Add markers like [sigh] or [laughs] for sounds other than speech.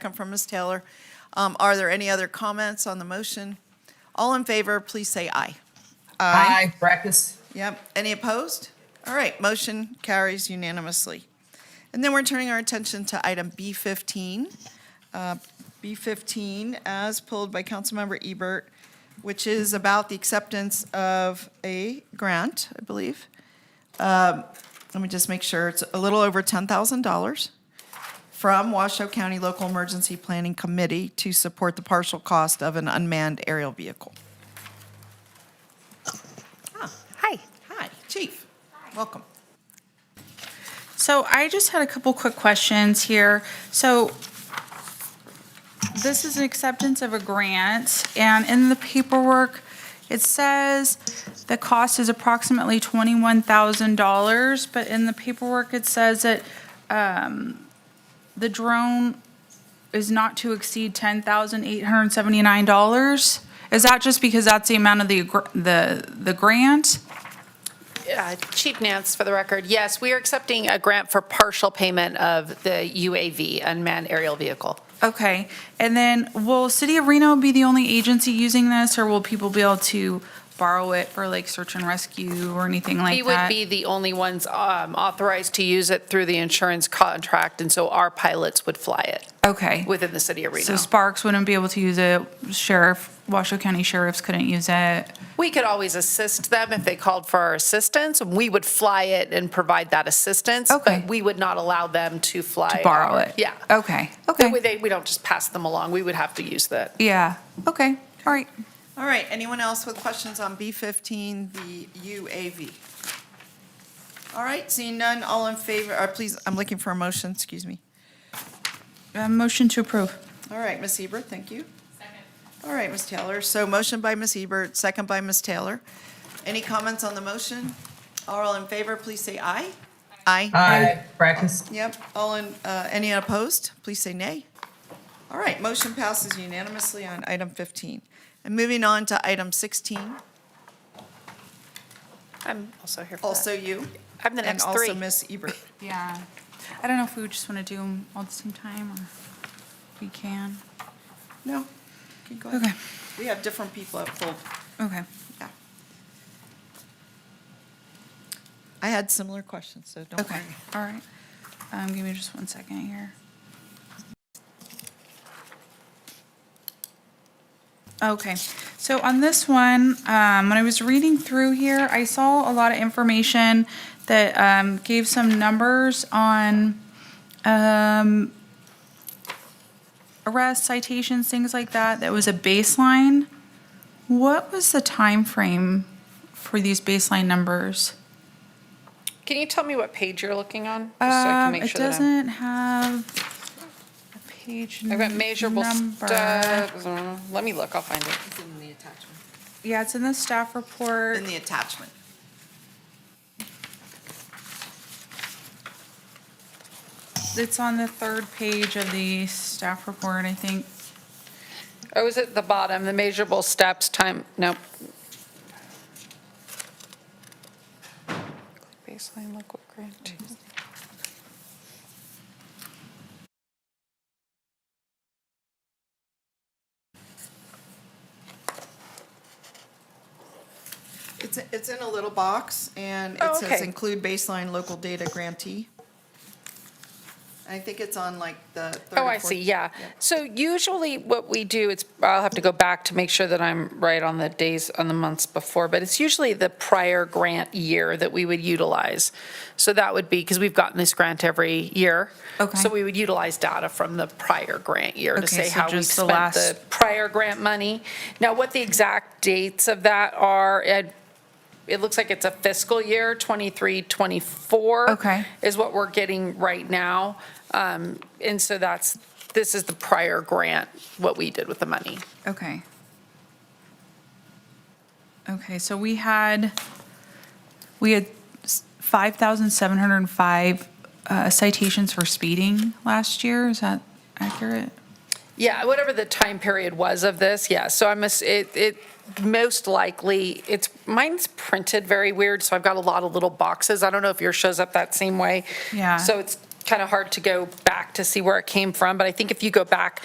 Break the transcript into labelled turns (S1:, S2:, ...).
S1: come from Ms. Taylor. Um, Are there any other comments on the motion? All in favor, please say aye.
S2: Aye. Practice.
S1: Yep. Any opposed? All right, motion carries unanimously. And then we're turning our attention to item B15. Uh, B15, as pulled by Councilmember Ebert, which is about the acceptance of a grant, I believe. Um, Let me just make sure, it's a little over $10,000 from Washoe County Local Emergency Planning Committee to support the partial cost of an unmanned aerial vehicle.
S3: Hi.
S1: Hi, Chief. Welcome.
S4: So I just had a couple quick questions here. So this is an acceptance of a grant, and in the paperwork, it says the cost is approximately twenty-one thousand dollars, but in the paperwork, it says that um, the drone is not to exceed ten thousand eight hundred and seventy-nine dollars. Is that just because that's the amount of the, gr- the, the grant?
S5: Uh, Chief Nance, for the record, yes, we are accepting a grant for partial payment of the UAV, unmanned aerial vehicle.
S4: Okay, and then will City of Reno be the only agency using this, or will people be able to borrow it for like search and rescue or anything
S5: We
S4: like
S5: would
S4: that?
S5: be the only ones um, authorized to use it through the insurance contract, and so our pilots would fly it
S4: Okay,
S5: within the city of
S4: so
S5: Reno.
S4: Sparks wouldn't be able to use it, Sheriff, Washoe County Sheriffs couldn't use it.
S5: We could always assist them if they called for our assistance. We would fly it and provide that assistance,
S4: Okay.
S5: but we would not allow them to fly.
S4: borrow
S5: our-
S4: it.
S5: uh, Yeah.
S4: Okay, okay.
S5: We- they- We don't just pass them along. We would have to use that.
S4: Yeah, okay, all right.
S1: All right, anyone else with questions on B15, the UAV? All right, seeing none, all in favor, or please, I'm looking for a motion, excuse me.
S4: Uh, Motion to approve.
S1: All right, Ms. Ebert, thank you. Second. All right, Ms. Taylor, so motion by Ms. Ebert, second by Ms. Taylor. Any comments on the motion? All in favor, please say aye. Aye.
S2: Aye. Practice.
S1: Yep, all in, uh, any opposed, please say nay. All right, motion passes unanimously on item 15. And moving on to item 16,
S5: I'm also here for that.
S1: also you.
S5: I'm the next
S1: And
S5: three.
S1: also Ms. [laughs] Ebert.
S4: Yeah, I don't know if we would just want to do them all at the same time, or if we can.
S1: No, you go ahead.
S4: Okay,
S1: We have different people at full,
S4: okay.
S1: yeah. I had similar questions, so don't
S4: Okay,
S1: worry.
S4: all right. Um, give me just one second here. Okay, so on this one, um, when I was reading through here, I saw a lot of information that, um, gave some numbers on, um, arrests, citations, things like that, that was a baseline. What was the time frame for these baseline numbers?
S5: Can you tell me what page you're looking on? Just so I can
S4: Um,
S5: make
S4: it
S5: sure that I'm-
S4: doesn't have a page
S5: I've got measurable
S4: number.
S5: steps. Mm, Let me look, I'll find it.
S4: Yeah, it's in the staff report.
S1: In the attachment.
S4: It's on the third page of the staff report, I think.
S5: Oh, is it the bottom, the measurable steps time, nope. Baseline look what grant. is.
S1: It's, it's in a little box, and
S5: Oh,
S1: it says
S5: okay.
S1: include baseline local data grantee. I think it's on like the third
S5: Oh,
S1: or
S5: I
S1: fourth-
S5: see, yeah. So usually what we do, it's, I'll have to go back to make sure that I'm right on the days, on the months before, but it's usually the prior grant year that we would utilize. So that would be, because we've gotten this grant every year.
S4: Okay.
S5: So we would utilize data from the prior grant year to
S4: Okay,
S5: say
S4: so
S5: how we
S4: just the
S5: spent the
S4: last-
S5: prior grant money. Now, what the exact dates of that are, it, it looks like it's a fiscal year, 23, 24.
S4: Okay.
S5: Is what we're getting right now. Um, And so that's, this is the prior grant, what we did with the money.
S4: Okay. Okay, so we had, we had five thousand seven hundred and five uh, citations for speeding last year. Is that accurate?
S5: Yeah, whatever the time period was of this, yeah. So I'm, ass- it, it, most likely, it's, mine's printed very weird, so I've got a lot of little boxes. I don't know if yours shows up that same way.
S4: Yeah.
S5: So it's kind of hard to go back back to see where it came from, but I think if you go back